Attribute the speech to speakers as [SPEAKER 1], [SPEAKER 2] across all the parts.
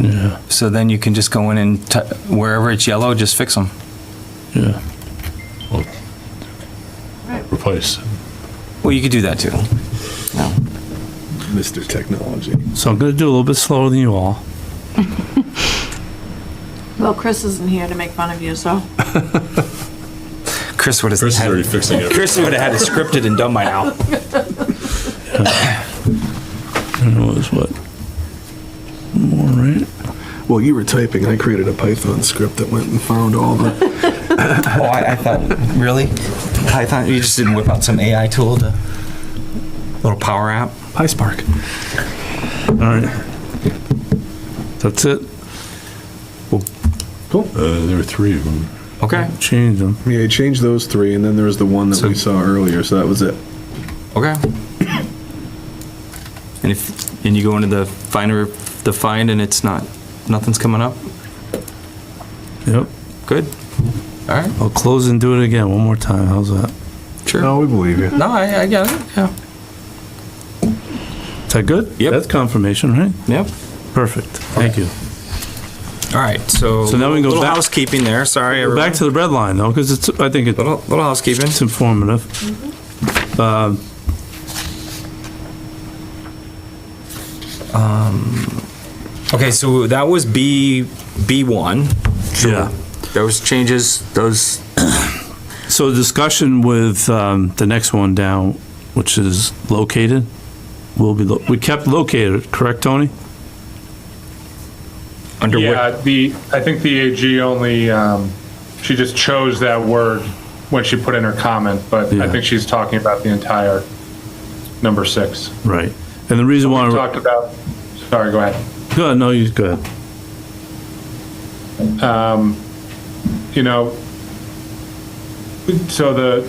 [SPEAKER 1] Yeah.
[SPEAKER 2] So then you can just go in and t- wherever it's yellow, just fix them.
[SPEAKER 1] yeah. Well,
[SPEAKER 3] Right.
[SPEAKER 1] Replace.
[SPEAKER 2] Well, you could do that too.
[SPEAKER 4] Mr. Technology.
[SPEAKER 1] So I'm gonna do a little bit slower than you all.
[SPEAKER 3] Well, Chris isn't here to make fun of you, so.
[SPEAKER 2] Chris would have
[SPEAKER 5] Chris is already fixing it.
[SPEAKER 2] Chris would have had it scripted and done by now.
[SPEAKER 1] And it was what? All right.
[SPEAKER 4] Well, you were typing. I created a Python script that went and found all the.
[SPEAKER 2] Oh, I, I thought really Python. You just didn't whip out some AI tool to little power app.
[SPEAKER 4] PySpark.
[SPEAKER 1] All right. That's it.
[SPEAKER 5] Uh, there were three of them.
[SPEAKER 2] Okay.
[SPEAKER 1] Change them.
[SPEAKER 4] Yeah, I changed those three, and then there was the one that
[SPEAKER 2] So-
[SPEAKER 4] we saw earlier. So that was it.
[SPEAKER 2] Okay. And if and you go into the finder, the find, and it's not, nothing's coming up.
[SPEAKER 1] Yep.
[SPEAKER 2] Good. All right.
[SPEAKER 1] I'll close and do it again one more time. How's that?
[SPEAKER 2] Sure.
[SPEAKER 4] No, we believe you.
[SPEAKER 2] No, I, I got it. Yeah.
[SPEAKER 1] Is that good?
[SPEAKER 2] Yep.
[SPEAKER 1] That's confirmation, right?
[SPEAKER 2] Yep.
[SPEAKER 1] Perfect. Thank you.
[SPEAKER 2] All right. So,
[SPEAKER 1] So now we can go
[SPEAKER 2] little
[SPEAKER 1] back-
[SPEAKER 2] housekeeping there. Sorry.
[SPEAKER 1] We're
[SPEAKER 2] everyone.
[SPEAKER 1] back to the red line though, because it's, I think it's
[SPEAKER 2] little, little housekeeping.
[SPEAKER 1] It's informative. Um,
[SPEAKER 2] Okay, so that was B B one.
[SPEAKER 1] Yeah.
[SPEAKER 2] Those changes, those
[SPEAKER 1] So discussion with um, the next one down, which is located, will be, lo- we kept located, correct, Tony?
[SPEAKER 2] under
[SPEAKER 6] Yeah, the, I think the AG only, um, she just chose that word when she put in her comment, but
[SPEAKER 1] Yeah.
[SPEAKER 6] I think she's talking about the entire number six.
[SPEAKER 1] Right. And the reason
[SPEAKER 6] We
[SPEAKER 1] why,
[SPEAKER 6] talked about, sorry, go ahead.
[SPEAKER 1] go ahead, no, you, go ahead.
[SPEAKER 6] you know, so the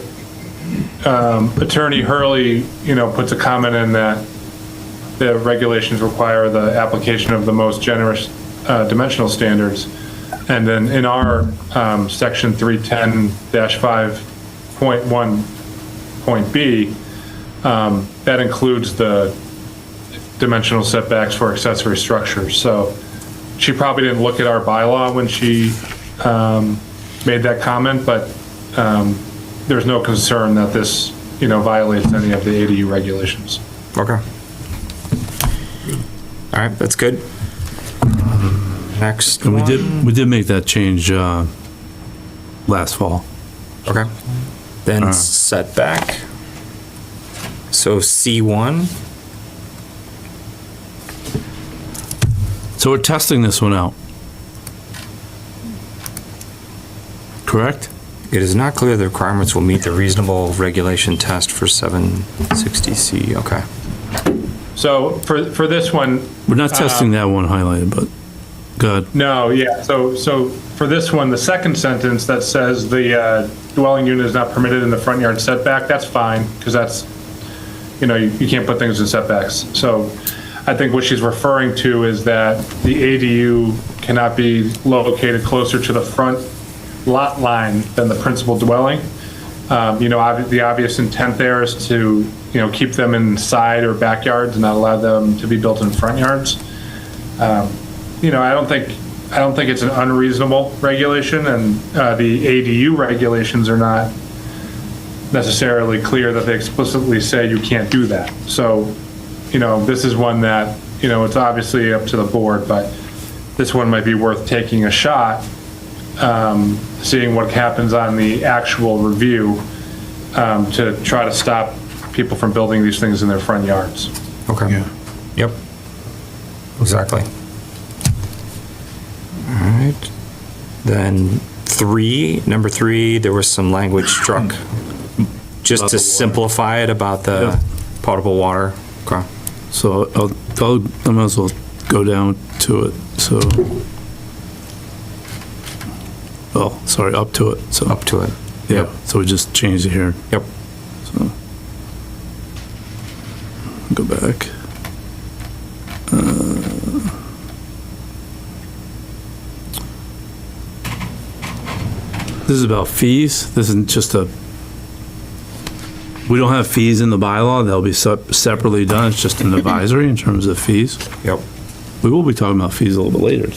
[SPEAKER 6] um, Attorney Hurley, you know, puts a comment in that the regulations require the application of the most generous uh, dimensional standards. And then in our um, section 310-5.1 point B, um, that includes the dimensional setbacks for accessory structures. So she probably didn't look at our bylaw when she um, made that comment, but um, there's no concern that this, you know, violates any of the ADU regulations.
[SPEAKER 2] Okay. All right, that's good. Next
[SPEAKER 1] And we
[SPEAKER 2] one.
[SPEAKER 1] did, we did make that change uh, last fall.
[SPEAKER 2] Okay. Then
[SPEAKER 1] Uh.
[SPEAKER 2] setback. So C one.
[SPEAKER 1] So we're testing this one out. Correct?
[SPEAKER 2] It is not clear the requirements will meet the reasonable regulation test for 760C. Okay.
[SPEAKER 6] So for, for this one,
[SPEAKER 1] We're not testing that one highlighted, but, good.
[SPEAKER 6] no, yeah, so, so for this one, the second sentence that says the uh, dwelling unit is not permitted in the front yard setback, that's fine, because that's, you know, you you can't put things in setbacks. So I think what she's referring to is that the ADU cannot be located closer to the front lot line than the principal dwelling. Um, You know, obvi- the obvious intent there is to, you know, keep them in side or backyards and not allow them to be built in front yards. Um, You know, I don't think, I don't think it's an unreasonable regulation, and uh, the ADU regulations are not necessarily clear that they explicitly say you can't do that. So, you know, this is one that, you know, it's obviously up to the board, but this one might be worth taking a shot um, seeing what happens on the actual review um, to try to stop people from building these things in their front yards.
[SPEAKER 2] Okay.
[SPEAKER 4] Yeah.
[SPEAKER 2] Yep. Exactly. All right. Then three, number three, there was some language struck just to simplify it about the potable water. Okay.
[SPEAKER 1] So I'll, I'll, I might as well go down to it, so. Oh, sorry, up to it, so,
[SPEAKER 2] Up to it.
[SPEAKER 1] yeah, so we just changed it here,
[SPEAKER 2] Yep.
[SPEAKER 1] so. Go back. Uh, This is about fees. This isn't just a, we don't have fees in the bylaw. They'll be sep- separately done. It's just an advisory in terms of fees.
[SPEAKER 2] Yep.
[SPEAKER 1] We will be talking about fees a little bit later.